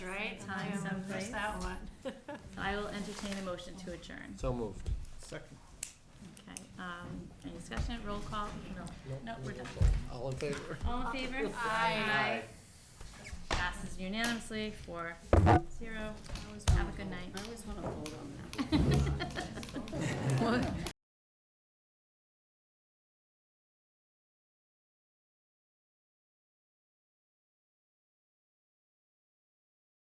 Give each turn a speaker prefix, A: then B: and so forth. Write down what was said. A: right time
B: Yeah, That's
A: someplace.
B: that one.
A: I will entertain a motion to adjourn.
C: So moved.
D: Second.
A: Okay, um, any discussion, roll call? No, we're done.
C: All in favor?
A: All in favor?
B: Aye.
A: Aye. Passes unanimously, four, zero.
B: I always
A: Have
B: wanna
A: a good
B: vote-
A: night.
B: I always wanna vote on that.
A: We'll-